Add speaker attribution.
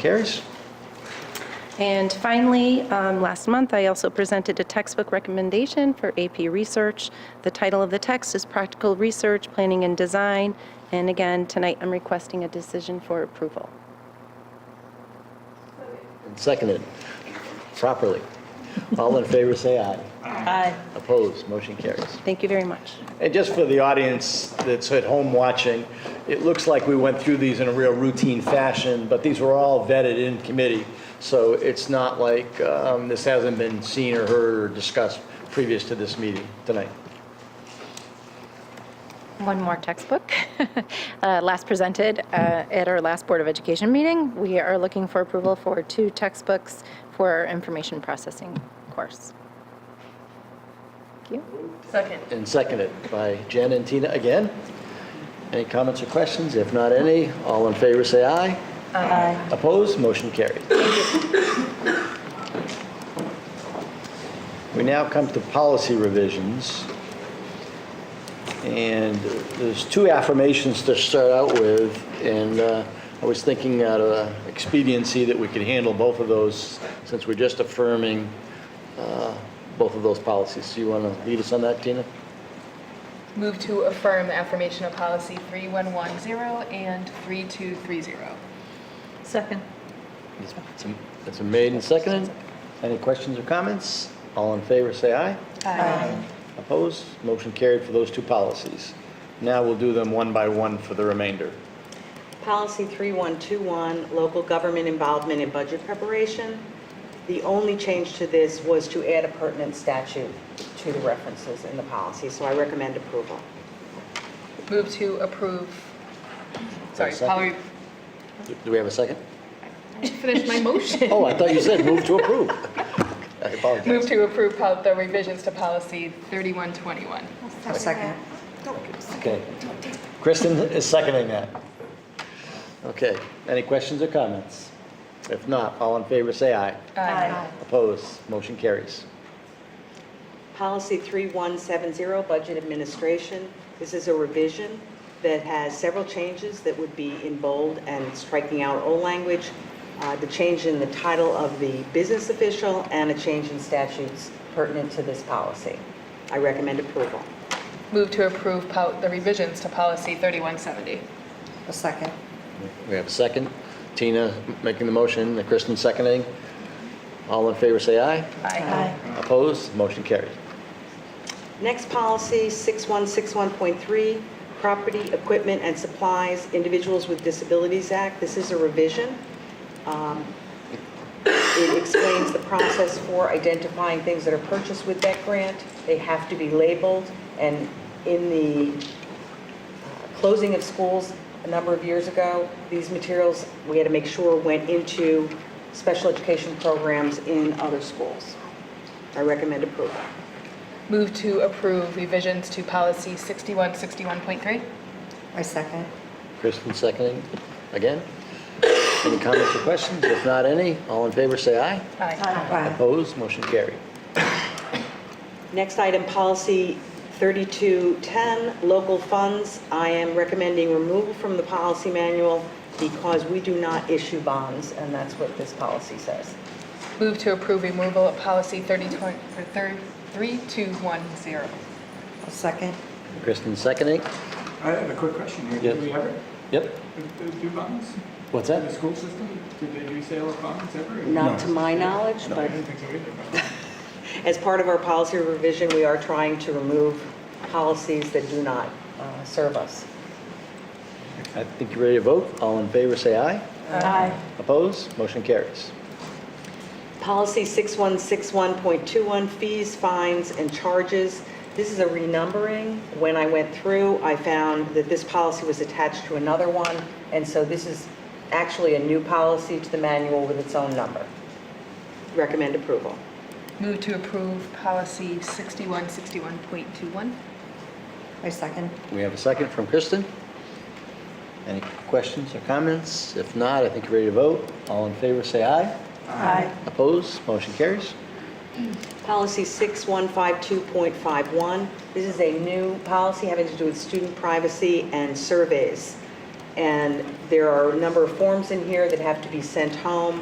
Speaker 1: carries.
Speaker 2: And finally, um, last month, I also presented a textbook recommendation for AP Research. The title of the text is Practical Research, Planning and Design. And again, tonight, I'm requesting a decision for approval.
Speaker 1: And Seconded properly. All in favor, say aye.
Speaker 2: Aye.
Speaker 1: Opposed, motion carries.
Speaker 2: Thank you very much.
Speaker 1: And just for the audience that's at home watching, it looks like we went through these in a real routine fashion, but these were all vetted in committee. So it's not like um, this hasn't been seen or heard or discussed previous to this meeting tonight.
Speaker 3: One more textbook, Uh, last presented uh, at our last Board of Education meeting. We are looking for approval for two textbooks for our information processing course. Thank you.
Speaker 1: And seconded by Jen and Tina again. Any comments or questions? If not any, all in favor, say aye. Aye. Opposed, motion carried. We now come to policy revisions. And there's two affirmations to start out with, and uh, I was thinking out of expediency that we could handle both of those since we're just affirming uh, both of those policies. So you want to lead us on that, Tina?
Speaker 4: Move to affirm the affirmation of policy 3110 and 3230.
Speaker 5: Second.
Speaker 1: It's- it's a- It's a made and seconded. Any questions or comments? All in favor, say aye. Opposed? Motion carried for those two policies. Now we'll do them one by one for the remainder.
Speaker 5: Policy 3121, local government involvement in budget preparation. The only change to this was to add a pertinent statute to the references in the policy, so I recommend approval.
Speaker 4: Move to approve, sorry,
Speaker 1: Second.
Speaker 4: Polly,
Speaker 1: Do- Do we have a second?
Speaker 4: finish my motion.
Speaker 1: Oh, I thought you said move to approve. I
Speaker 4: Move
Speaker 1: apologize.
Speaker 4: to approve pol- the revisions to policy 3121.
Speaker 5: Second.
Speaker 1: Okay. Kristen is seconding that. Okay. Any questions or comments? If not, all in favor, say aye.
Speaker 4: Aye.
Speaker 1: Opposed? Motion carries.
Speaker 5: Policy 3170, budget administration. This is a revision that has several changes that would be in bold and striking out old language, uh, the change in the title of the business official, and a change in statutes pertinent to this policy. I recommend approval.
Speaker 4: Move to approve pol- the revisions to policy 3170.
Speaker 6: A second.
Speaker 1: We have a second. Tina making the motion, and Kristen seconding. All in favor, say aye.
Speaker 4: Aye.
Speaker 1: Opposed? Motion carried.
Speaker 5: Next policy, 6161.3, Property, Equipment, and Supplies, Individuals with Disabilities Act. This is a revision. Um, It explains the process for identifying things that are purchased with that grant. They have to be labeled, and in the uh, closing of schools a number of years ago, these materials, we had to make sure went into special education programs in other schools. I recommend approval.
Speaker 4: Move to approve revisions to policy 6161.3.
Speaker 6: I second.
Speaker 1: Kristen seconding again. Any comments or questions? If not any, all in favor, say aye.
Speaker 4: Aye.
Speaker 6: Aye.
Speaker 1: Opposed? Motion carried.
Speaker 5: Next item, policy 3210, local funds. I am recommending removal from the policy manual because we do not issue bonds, and that's what this policy says.
Speaker 4: Move to approve removal of policy 32 or thir- 3210.
Speaker 6: A second.
Speaker 1: Kristen seconding.
Speaker 7: I have a quick question here.
Speaker 1: Yes.
Speaker 7: Do we ever
Speaker 1: Yep.
Speaker 7: do- do bonds?
Speaker 1: What's
Speaker 7: In the school system, do they do sale of bonds ever?
Speaker 5: Not to my knowledge,
Speaker 7: I
Speaker 5: but
Speaker 7: didn't think so either.
Speaker 5: as part of our policy revision, we are trying to remove policies that do not uh, serve us.
Speaker 1: I think you're ready to vote. All in favor, say aye.
Speaker 4: Aye.
Speaker 1: Opposed? Motion carries.
Speaker 5: Policy 6161.21, fees, fines, and charges. This is a renumbering. When I went through, I found that this policy was attached to another one, and so this is actually a new policy to the manual with its own number. Recommend approval.
Speaker 4: Move to approve policy 6161.21.
Speaker 6: I second.
Speaker 1: We have a second from Kristen. Any questions or comments? If not, I think you're ready to vote. All in favor, say aye.
Speaker 6: Aye.
Speaker 1: Opposed? Motion carries.
Speaker 5: Policy 6152.51, this is a new policy having to do with student privacy and surveys. And there are a number of forms in here that have to be sent home.